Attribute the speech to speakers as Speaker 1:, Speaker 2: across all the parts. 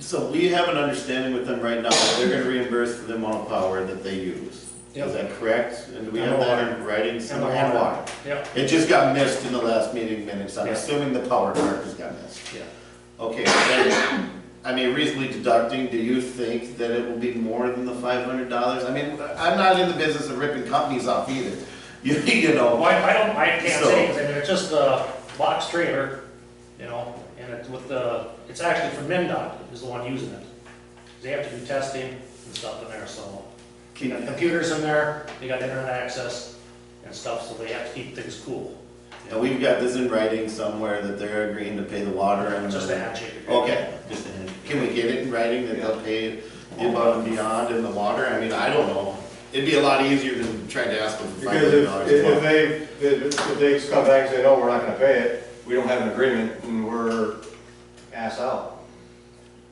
Speaker 1: So we have an understanding with them right now, that they're gonna reimburse for the amount of power that they use.
Speaker 2: Yep.
Speaker 1: Is that correct? And do we
Speaker 2: And
Speaker 1: have
Speaker 2: the
Speaker 1: that in writing somewhere? And why?
Speaker 2: Yep.
Speaker 1: It just got missed in the last meeting minutes, I'm
Speaker 2: Yeah.
Speaker 1: assuming the power part just got missed.
Speaker 2: Yeah.
Speaker 1: Okay, then, I mean, reasonably deducting, do you think that it will be more than the five hundred dollars? I mean, I'm not in the business of ripping companies off either, you, you know.
Speaker 2: Well, I I don't, I can't
Speaker 1: So-
Speaker 2: say, 'cause I mean, it's just a box trailer, you know, and it's with the, it's actually from MinDOT is the one using it. They have to do testing and stuff in there, so. You got
Speaker 1: Can-
Speaker 2: computers in there, they got internet access and stuff, so they have to keep things cool.
Speaker 1: And we've got this in writing somewhere that they're agreeing to pay the water and.
Speaker 2: Just a handshake.
Speaker 1: Okay, just, can we get it in writing that they'll pay the above and beyond in the water? I mean, I don't know. It'd be a lot easier than trying to ask them for five
Speaker 3: Because
Speaker 1: hundred
Speaker 3: if,
Speaker 1: dollars.
Speaker 3: if if they, if if they come back and say, no, we're not gonna pay it, we don't have an agreement, and we're ass out.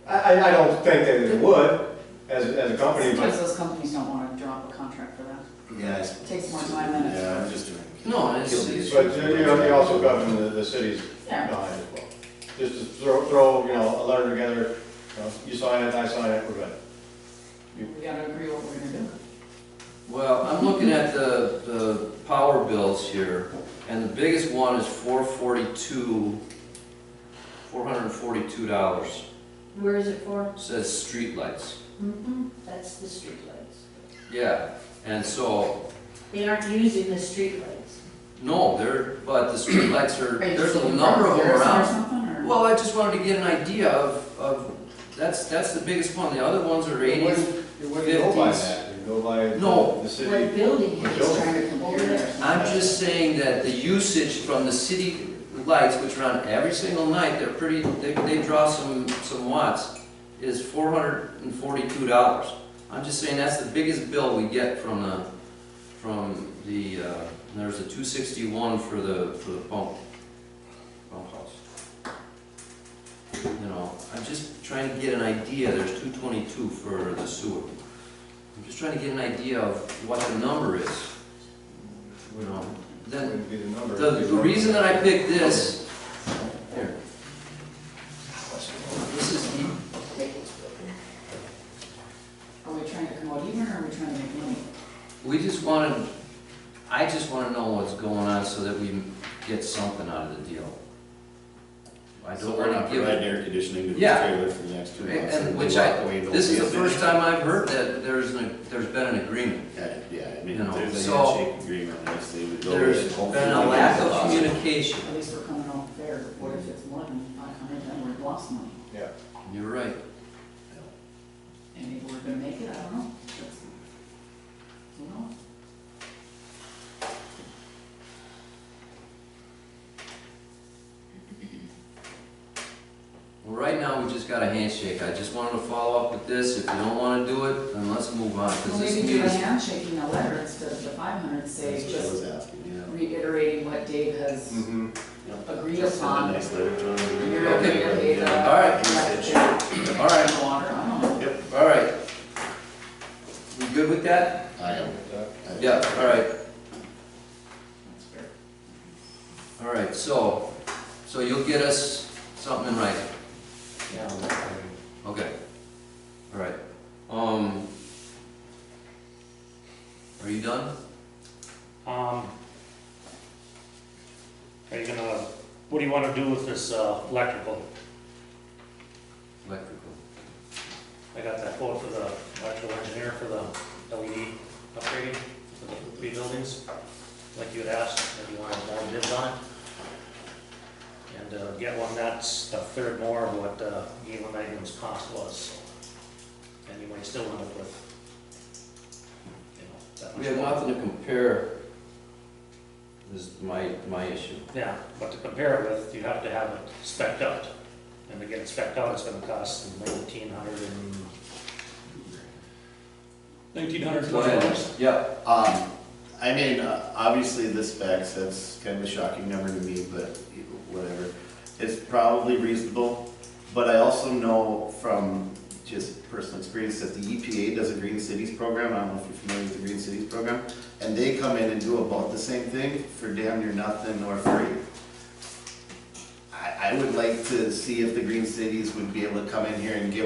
Speaker 3: I, I, I don't think that it would, as, as a company,
Speaker 4: Sometimes
Speaker 3: but
Speaker 4: those companies don't wanna draw up a contract for that.
Speaker 1: Yeah, it's.
Speaker 4: Takes more time than it's-
Speaker 1: Yeah, I'm just trying. to
Speaker 5: No, it's-
Speaker 1: kill the issue.
Speaker 3: but you know, you also govern the, the cities
Speaker 4: Yeah.
Speaker 3: behind as well. Just to throw, throw, you know, a letter together, you know, you sign it, I sign it, we're good.
Speaker 4: We gotta agree what we're gonna do.
Speaker 5: Well, I'm looking at the, the power bills here, and the biggest one is four forty-two, four hundred and forty-two dollars.
Speaker 6: Where is it for?
Speaker 5: Says streetlights.
Speaker 6: Mm-hmm. That's the streetlights.
Speaker 5: Yeah, and so,
Speaker 6: They aren't using the streetlights.
Speaker 5: no, there, but the streetlights are,
Speaker 4: Are you
Speaker 5: there's
Speaker 4: just
Speaker 5: a
Speaker 4: looking
Speaker 5: number
Speaker 4: for
Speaker 5: of them
Speaker 4: comparison
Speaker 5: around.
Speaker 4: Or something, or?
Speaker 5: Well, I just wanted to get an idea of, of, that's, that's the biggest one, the other ones are eighties.
Speaker 3: You wouldn't go by
Speaker 5: 50s.
Speaker 3: that, you go by
Speaker 5: No.
Speaker 3: the
Speaker 6: What
Speaker 3: city.
Speaker 6: building
Speaker 3: We're
Speaker 6: is
Speaker 3: building.
Speaker 4: Just trying to compare there.
Speaker 5: I'm just saying that the usage from the city lights, which are on every single night, they're pretty, they, they draw some, some watts, is four hundred and forty-two dollars. I'm just saying that's the biggest bill we get from uh, the, from the, uh, and there's a two sixty-one for the, for the pump, pump house. You know, I'm just trying to get an idea, there's two twenty-two for the sewer. I'm just trying to get an idea of what the number is, you know, then
Speaker 3: Wouldn't be the number.
Speaker 5: the, the reason that I picked this, here. This is, the-
Speaker 4: Are we trying to come out even, or are we trying to make money?
Speaker 5: we just wanted, I just wanna know what's going on so that we get something out of the deal. I
Speaker 1: So
Speaker 5: don't
Speaker 1: we're
Speaker 5: wanna
Speaker 1: not
Speaker 5: give
Speaker 1: providing
Speaker 5: it,
Speaker 1: air conditioning to the
Speaker 5: Yeah.
Speaker 1: trailer for the next two
Speaker 5: and-
Speaker 1: months.
Speaker 5: and
Speaker 1: we
Speaker 5: which
Speaker 1: walk
Speaker 5: I,
Speaker 1: away, there'll
Speaker 5: this
Speaker 1: be
Speaker 5: is
Speaker 1: a
Speaker 5: the first
Speaker 1: thing.
Speaker 5: time I've heard that there's, an- there's been an agreement.
Speaker 1: Yeah, Yeah, I mean,
Speaker 5: You know,
Speaker 1: there's a
Speaker 5: so-
Speaker 1: handshake agreement, honestly, we go with
Speaker 5: There's
Speaker 1: it. Hopefully
Speaker 5: been a
Speaker 1: we
Speaker 5: lack
Speaker 1: get
Speaker 5: of
Speaker 1: lost.
Speaker 5: communication.
Speaker 4: At least we're coming out fair, but what if it's more than five hundred, then we've lost money?
Speaker 3: Yeah.
Speaker 5: You're right.
Speaker 4: And maybe we're gonna make it, I don't know. That's- You know?
Speaker 5: Well, Right now, we just got a handshake. I just wanted to follow up with this. If you don't wanna do it, then let's move on,
Speaker 4: Well,
Speaker 5: cause this
Speaker 4: maybe do a
Speaker 5: means
Speaker 4: handshake in a letter instead of the five hundred, say,
Speaker 1: That's what I
Speaker 4: just
Speaker 1: was asking, yeah.
Speaker 4: reiterating what Dave has
Speaker 3: Mm-hmm.
Speaker 4: agreed
Speaker 1: Just send a
Speaker 4: upon.
Speaker 1: nice letter to them.
Speaker 4: You're
Speaker 5: Okay.
Speaker 4: okay with the.
Speaker 5: All right. All right.
Speaker 4: uh, Water, I don't know.
Speaker 5: All right. You good with that?
Speaker 1: I am. I-
Speaker 5: Yeah, all right,
Speaker 4: That's fair.
Speaker 5: all right, so, so you'll get us something in writing? Yeah. Okay, all right, um, are you done?
Speaker 2: Um, Are you gonna, what do you wanna do with this uh, electrical?
Speaker 5: Electrical.
Speaker 2: I got that quote for the electrical engineer for the LED upgrading for the three buildings, like you had asked, if you wanted more bids on it. And uh, get one that's a third more of what uh, Galen Magnum's cost was, so. And you might still end up with, you know, that much.
Speaker 5: We have
Speaker 2: more.
Speaker 5: nothing to compare, is my, my issue.
Speaker 2: Yeah, but to compare it with, you have to have it spec'd out. And to get it spec'd out, it's gonna cost nineteen hundred and... Nineteen hundred dollars.
Speaker 5: Yeah,
Speaker 1: Um, I mean, uh, obviously the specs, that's kind of a shocking number to me, but whatever. It's probably reasonable, but I also know from just personal experience that the EPA does a Green Cities program, I don't know if you're familiar with the Green Cities program, and they come in and do about the same thing for damn near nothing or free. I, I would like to see if the Green Cities would be able to come in here and give